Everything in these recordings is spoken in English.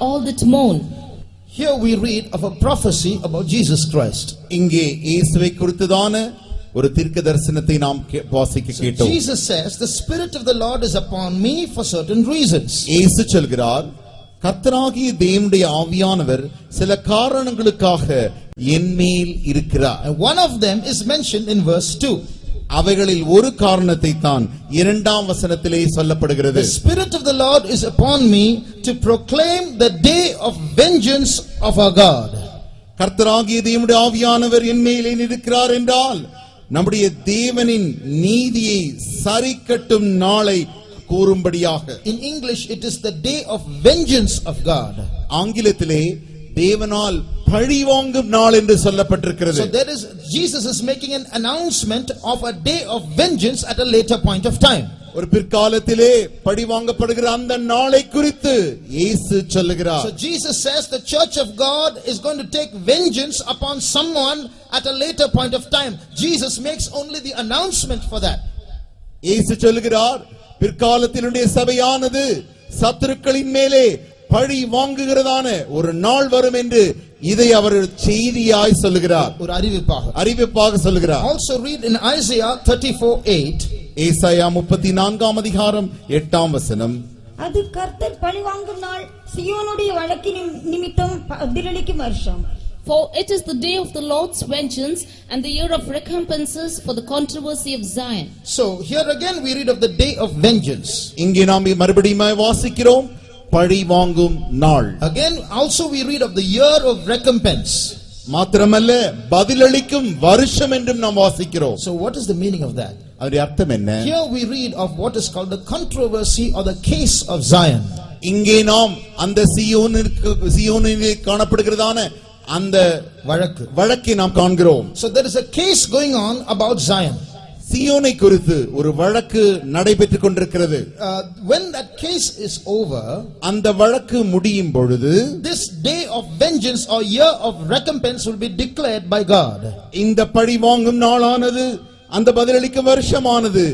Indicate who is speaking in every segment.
Speaker 1: all that mourn.
Speaker 2: Here we read of a prophecy about Jesus Christ.
Speaker 3: இங்கே இயேசுவை குறித்ததான ஒரு தீர்க்க தரிசனத்தை நாம் கே- வாசிக்க கேட்டோம்
Speaker 2: Jesus says, The Spirit of the Lord is upon me for certain reasons.
Speaker 3: இயேசு சொல்கிறார் கர்த்தராகிய தேவனுடைய ஆவியானவர் சில காரணங்களுக்காக என் மேல் இருக்கிறார்
Speaker 2: And one of them is mentioned in verse 2.
Speaker 3: அவைகளில் ஒரு காரணத்தை தான் இரண்டாம் வசனத்திலே
Speaker 2: The
Speaker 3: சொல்லப்படுகிறது
Speaker 2: Spirit of the Lord is upon me to proclaim the day of vengeance of our God.
Speaker 3: கர்த்தராகிய தேவனுடைய ஆவியானவர் என் மேலே இருக்கிறார் என்றால் நம்முடைய தேவனின் நீதியை சரிக்கட்டும் நாளை கூறும்படியாக
Speaker 2: In English, it is the day of vengeance of God.
Speaker 3: ஆங்கிலத்திலே தேவனால் பழிவாங்கும் நாள் என்று சொல்லப்பட்டிருக்கிறது
Speaker 2: So there is Jesus is making an announcement of a day of vengeance at a later point of time.
Speaker 3: ஒரு பிற்காலத்திலே பழிவாங்கப்படுகிற அந்த நாளை குறித்து இயேசு
Speaker 2: So
Speaker 3: சொல்லுகிறார்
Speaker 2: Jesus says the church of God is going to take vengeance upon someone at a later point of time. Jesus makes only the announcement for that.
Speaker 3: இயேசு சொல்லுகிறார் பிற்காலத்தினுடைய சபையானது சத்துருக்களின் மேலே பழி வாங்குகிறதான ஒரு நாள் வரும் என்று இதை அவர் செய்தியாய் சொல்லுகிறார்
Speaker 2: ஒரு அறிவிப்பாக.
Speaker 3: அறிவிப்பாக சொல்லுகிறார்
Speaker 2: Also read in Isaiah 34:8.
Speaker 3: ஏசாயா முப்பத்தி நான்காம் அதிகாரம் எட்டாம் வசனம்
Speaker 4: அது கர்த்தர் பழிவாங்கும் நாள் சியோனுடைய வழக்கு நிம்- நிமித்தம் பதிலளிக்கும் வருஷம்
Speaker 1: For it is the day of the Lord's vengeance and the year of recompenses for the controversy of Zion.
Speaker 2: So here again we read of the day of vengeance.
Speaker 3: இங்கே நாம் மறுபடியும் வாசிக்கிறோம் பழி வாங்கும் நாள்
Speaker 2: Again also we read of the year of recompense.
Speaker 3: மாத்திரமல்ல பதிலளிக்கும் வருஷம் என்றும் நாம் வாசிக்கிறோம்
Speaker 2: So what is the meaning of that?
Speaker 3: அதனுடைய அர்த்தம் என்ன
Speaker 2: Here we read of what is called the controversy or the case of Zion.
Speaker 3: இங்கே நாம் அந்த சியோனிற்கு சியோனிலே காணப்படுகிறதான அந்த
Speaker 2: வழக்கு.
Speaker 3: வழக்கை நாம் காண்கிறோம்
Speaker 2: So there is a case going on about Zion.
Speaker 3: சியோனை குறித்து ஒரு வழக்கு நடைபெற்றுக் கொண்டிருக்கிறது
Speaker 2: Uh, when that case is over,
Speaker 3: அந்த வழக்கு முடியும் பொழுது
Speaker 2: this day of vengeance or year of recompense will be declared by God.
Speaker 3: இந்த பழி வாங்கும் நாளானது அந்த பதிலளிக்கும் வருஷமானது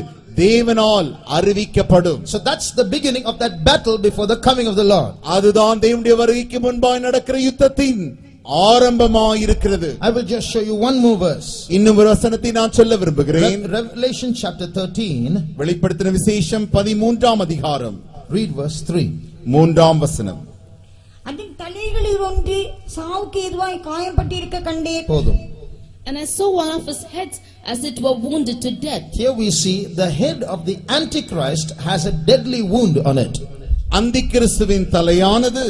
Speaker 3: தேவனால் அறிவிக்கப்படும்
Speaker 2: So that's the beginning of that battle before the coming of the Lord.
Speaker 3: அதுதான் தேவனுடைய வருகைக்கு முன்பாய் நடக்கிற யுத்தத்தின் ஆரம்பமாயிருக்கிறது
Speaker 2: I will just show you one more verse.
Speaker 3: இன்னும் ஒரு வசனத்தை நான் சொல்ல விரும்புகிறேன்
Speaker 2: Re- Revelation chapter 13,
Speaker 3: வெளிப்படுத்தின விசேஷம் பதிமூன்றாம் அதிகாரம்
Speaker 2: read verse 3.
Speaker 3: மூன்றாம் வசனம்
Speaker 4: அதன் தலைகளில் ஒன்று சாவுக்கு எதுவாய் காயப்பட்டிருக்க கண்டேன்
Speaker 2: போதும்.
Speaker 1: And I saw one of his heads as it were wounded to death.
Speaker 2: Here we see the head of the Antichrist has a deadly wound on it.
Speaker 3: அந்தி கிறிஸ்துவின் தலையானது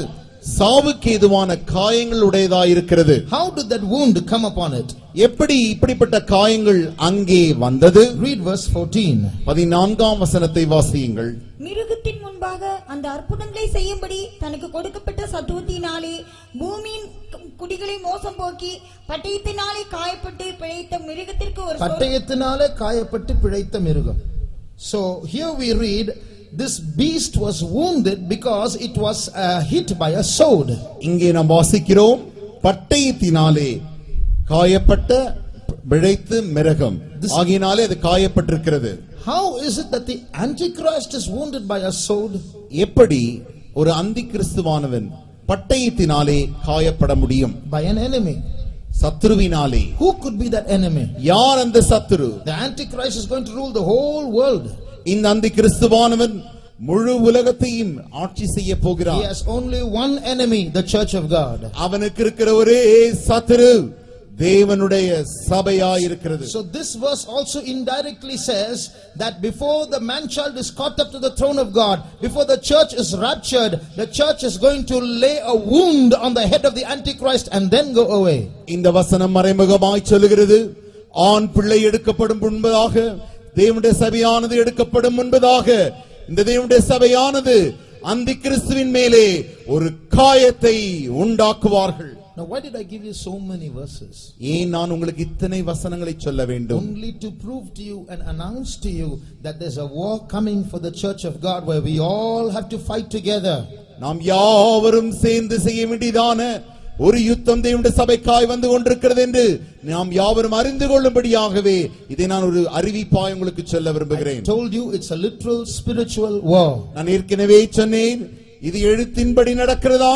Speaker 3: சாவுக்கு ஏதுவான காயங்கள் உடையதாயிருக்கிறது
Speaker 2: How did that wound come upon it?
Speaker 3: எப்படி இப்படிப்பட்ட காயங்கள் அங்கே வந்தது
Speaker 2: Read verse 14.
Speaker 3: பதினான்காம் வசனத்தை வாசியுங்கள்
Speaker 4: மிருகத்தின் முன்பாக அந்த அற்புதங்களை செய்யும்படி தனக்கு கொடுக்கப்பட்ட சத்துவத்தினாலே பூமியின் கு- குடிகளை மோசம் போக்கி பட்டயத்தினாலே காயப்பட்டு பிழைத்த மிருகத்திற்கு ஒரு சொல்
Speaker 2: பட்டயத்தினாலே காயப்பட்டு பிழைத்த மிருகம் so here we read this beast was wounded because it was uh, hit by a sword
Speaker 3: இங்கே நாம் வாசிக்கிறோம் பட்டயத்தினாலே காயப்பட்ட பிழைத்து மிருகம் ஆகினாலே அது காயப்பட்டிருக்கிறது
Speaker 2: how is it that the antichrist is wounded by a sword
Speaker 3: எப்படி ஒரு அந்தி கிறிஸ்துவானவன் பட்டயத்தினாலே காயப்பட முடியும்
Speaker 2: by an enemy
Speaker 3: சத்ருவினாலே
Speaker 2: who could be that enemy
Speaker 3: யார் அந்த சத்துரு
Speaker 2: the antichrist is going to rule the whole world
Speaker 3: இந்த அந்தி கிறிஸ்துவானவன் முழு உலகத்தையும் ஆட்சி செய்ய
Speaker 2: he
Speaker 3: போகிறார்
Speaker 2: has only one enemy the church of god
Speaker 3: அவனுக்கு இருக்கிற ஒரே சத்துரு தேவனுடைய சபையாயிருக்கிறது
Speaker 2: so this verse also indirectly says that before the man child is caught up to the throne of god before the church is raptured the church is going to lay a wound on the head of the antichrist and then go away
Speaker 3: இந்த வசனம் மறைமுகமாய் சொல்லுகிறது ஆண் பிள்ளை எடுக்கப்படும் முன்பதாக தேவனுடைய சபையானது எடுக்கப்படும் முன்பதாக இந்த தேவனுடைய சபையானது அந்தி கிறிஸ்துவின் மேலே ஒரு காயத்தை உண்டாக்குவார்கள்
Speaker 2: now why did i give you so many verses
Speaker 3: ஏன் நான் உங்களுக்கு இத்தனை வசனங்களை சொல்ல வேண்டும்
Speaker 2: only to prove to you and announce to you that there's a war coming for the church of god where we all have to fight together
Speaker 3: நாம் யாவரும் சேர்ந்து செய்ய வேண்டியதான ஒரு யுத்தம் தேவனுடைய சபைக்காய் வந்து கொண்டிருக்கிறது என்று நாம் யாவரும் அறிந்து கொள்ளும்படியாகவே இதை நான் ஒரு அறிவிப்பாய் உங்களுக்கு சொல்ல
Speaker 2: I
Speaker 3: விரும்புகிறேன்
Speaker 2: told you it's a literal spiritual war
Speaker 3: நான் ஏற்கனவே சொன்னேன் இது எழுத்தின்படி நடக்கிறதா